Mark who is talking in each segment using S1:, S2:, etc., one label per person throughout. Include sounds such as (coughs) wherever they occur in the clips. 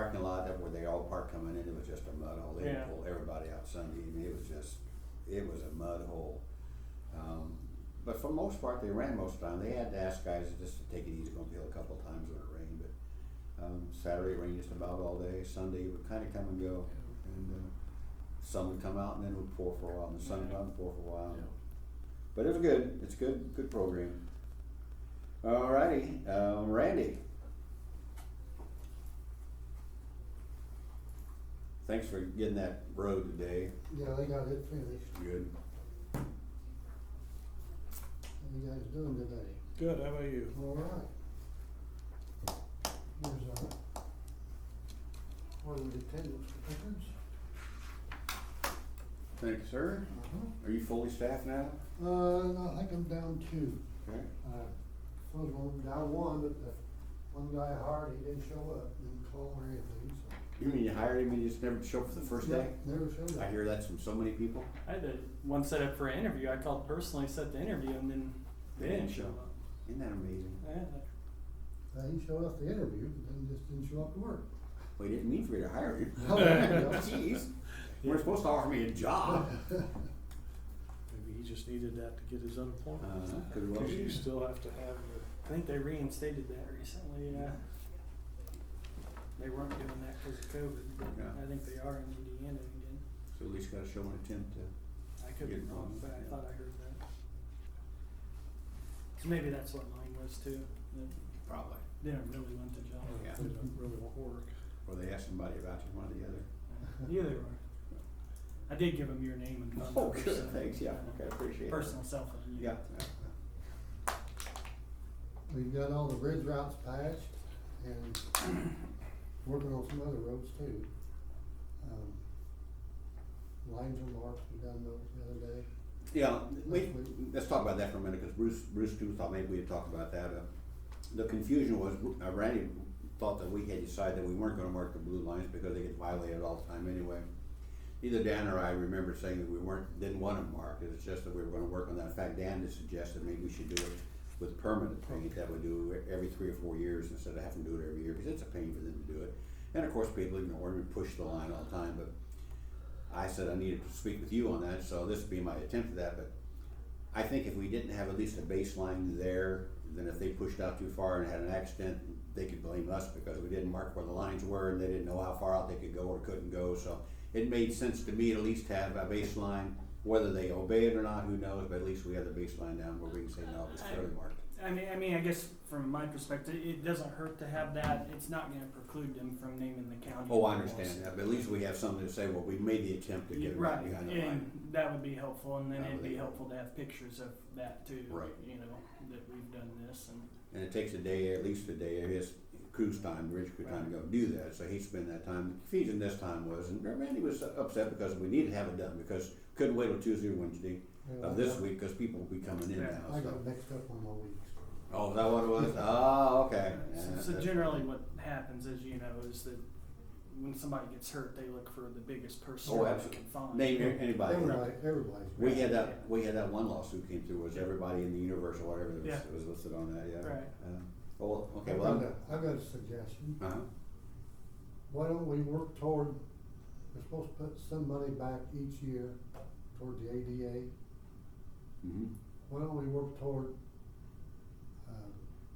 S1: that where they all parked coming in, it was just a mud hole, they
S2: Yeah.
S1: didn't pull everybody out Sunday evening, it was just, it was a mud hole. Um, but for most part, they ran most of the time, they had to ask guys just to take it easy, gonna be a couple times when it rained, but, um, Saturday it rained just about all day, Sunday would kinda come and go, and, uh, sun would come out and then it would pour for a while, and the sun would
S2: Yeah.
S1: come and pour for a while.
S3: Yeah.
S1: But it was good, it's good, good program. Alrighty, um, Randy. Thanks for getting that road today,
S4: Yeah, they got it finished,
S1: good.
S4: How you guys doing today?
S2: Good, how about you?
S4: All right. Here's our order of attendance records.
S1: Thank you, sir.
S4: Uh-huh.
S1: Are you fully staffed now?
S4: Uh, no, I think I'm down two.
S1: Okay.
S4: Uh, Supposed one, down one, but the one guy hired, he didn't show up, didn't call or anything, so.
S1: You mean you hired him and you just never showed up for the first day?
S4: Yeah, Never showed up.
S1: I hear that's from so many people.
S2: I had the one set up for an interview. I called personally, set the interview, and then they didn't show up.
S1: Isn't that amazing?
S2: Yeah,
S4: Uh, He showed up to interview, but then just didn't show up to work.
S1: We didn't mean for you to hire him.
S4: Oh, yeah.
S1: Jeez, you weren't supposed to offer me a job.
S3: Maybe he just needed that to get his unemployment.
S1: Uh, could well
S3: Cause you
S1: be.
S3: still have to have your,
S2: I think they reinstated that recently. Yeah, they weren't doing that because of COVID, but
S1: Yeah.
S2: I think they are in Indiana again.
S1: So at least gotta show an attempt to.
S2: I could be
S1: Good
S2: wrong,
S1: one,
S2: but I
S1: yeah.
S2: thought I heard that. So maybe that's what mine was too. That
S1: Probably.
S2: they didn't really want the job.
S1: Yeah.
S3: they don't really want work.
S1: Or they ask somebody about you, one or the other.
S2: (laughs) Either or. I did give them your name and
S1: Oh,
S2: phone number. so-
S1: appreciate
S2: Oh, Personal cell phone.
S1: Yeah.
S4: We've got all the bridge routes patched and (coughs) working on some other roads too. Um, Lines are marked, we done those the other day.
S1: Yeah, we, let's talk about that for a minute, cause Bruce, Bruce too thought maybe we had talked about that. Uh, The confusion was, uh, Randy thought that we had decided that we weren't gonna mark the blue lines because they get violated all the time anyway. Either Dan or I remember saying that we weren't, didn't want them marked, it's just that we were gonna work on that. In fact, Dan had suggested maybe we should do it with permanent paint, that would do it every three or four years instead of having to do it every year, because it's a pain for them to do it. And of course, people ignore them and push the line all the time, but I said I needed to speak with you on that, so this would be my attempt at that, but I think if we didn't have at least a baseline there, then if they pushed out too far and had an accident, they could blame us because we didn't mark where the lines were and they didn't know how far out they could go or couldn't go, so it made sense to me to at least have a baseline, whether they obey it or not, who knows, but at least we have the baseline down where we can say, no, it's clearly marked.
S2: I mean, I mean, I guess from my perspective, it doesn't hurt to have that. It's not gonna preclude them from naming the county.
S1: Oh, I
S2: as well.
S1: understand that, but at least we have something to say, well, we made the attempt to
S2: Yeah,
S1: get it
S2: Right,
S1: right behind the line.
S2: and that would be helpful, and then
S1: That
S2: it'd
S1: would
S2: be
S1: be-
S2: helpful to have pictures of that too.
S1: Right.
S2: You know, that we've done this and.
S1: And it takes a day, at least a day of his cruise time, Rich crew time to go do that, so he spent that time, confusion this time was, and Randy was upset because we needed to have it done, because couldn't wait till Tuesday or Wednesday of this week, cause people will be coming in
S2: Yeah.
S1: now,
S4: I
S1: so.
S4: got mixed up on my weeks.
S1: Oh, is that what it
S2: (laughs)
S1: was? Oh, okay. Yeah,
S2: So
S1: that's-
S2: generally what happens is, you know, is that when somebody gets hurt, they look for the biggest person
S1: Oh,
S2: they
S1: absolutely.
S2: can find.
S1: Name a- anybody.
S4: Everybody, everybody's.
S1: We
S4: mixed
S1: had
S4: up.
S1: that, we had that one lawsuit came through, was everybody in the universe or whatever
S2: Yeah.
S1: that was, was listed on that, yeah.
S2: Right.
S1: Uh, Well, okay,
S4: I've
S1: well,
S4: got
S1: I'm-
S4: a- I've got a suggestion.
S1: uh-huh,
S4: Why don't we work toward, we're supposed to put some money back each year toward the ADA.
S1: mhm,
S4: Why don't we work toward, uh,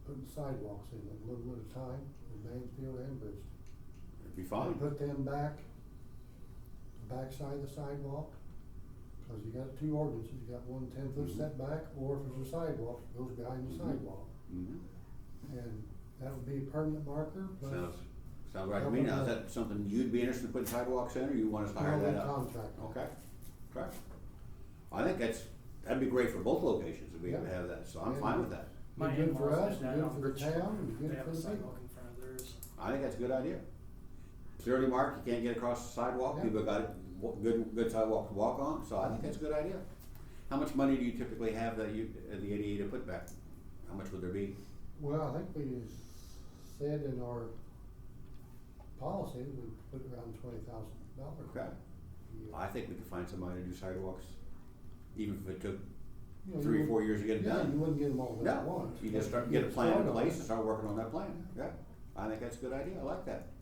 S4: putting sidewalks in a little bit of time in Mansfield and Bridgeton?
S1: it'd be
S4: I
S1: fine.
S4: Put them back, the backside of the sidewalk, cause you got two ordinances, you got one ten foot
S1: Mhm.
S4: setback, or if there's a sidewalk, it goes behind the
S1: Mhm.
S4: sidewalk.
S1: Mhm.
S4: And that would be a permanent marker, but.
S1: Sounds, sounds right to me. Now, is that something you'd be interested in putting sidewalks in, or you want us to hire that out?
S4: Contract.
S1: Okay, correct. I think that's, that'd be great for both locations if we
S4: Yeah.
S1: ever have that, so I'm
S4: Yeah.
S1: fine with that.
S2: My
S4: Be good for
S2: in-laws
S4: us,
S2: did that
S4: good
S2: on
S4: for the
S2: Bridge Street.
S4: town, and good
S2: They have
S4: for
S2: a
S4: the
S2: sidewalk in front of theirs.
S1: I think that's a good idea. It's early mark, you can't get across the sidewalk,
S4: Yeah.
S1: people got it, wa- good, good sidewalk to walk on, so I think that's a good idea. How much money do you typically have that you, uh, the ADA to put back? How much would there be?
S4: Well, I think we said in our policy, we put around twenty thousand dollars.
S1: Okay, I think we could find somebody to do sidewalks, even if it took three, or four years to get it
S4: Yeah,
S1: done.
S4: you wouldn't get them all done at
S1: No,
S4: once.
S1: you just
S4: but
S1: start,
S4: you
S1: get a plan in
S4: start on
S1: place
S4: it.
S1: and start working on that plan, yeah. I think that's a good idea, I like that.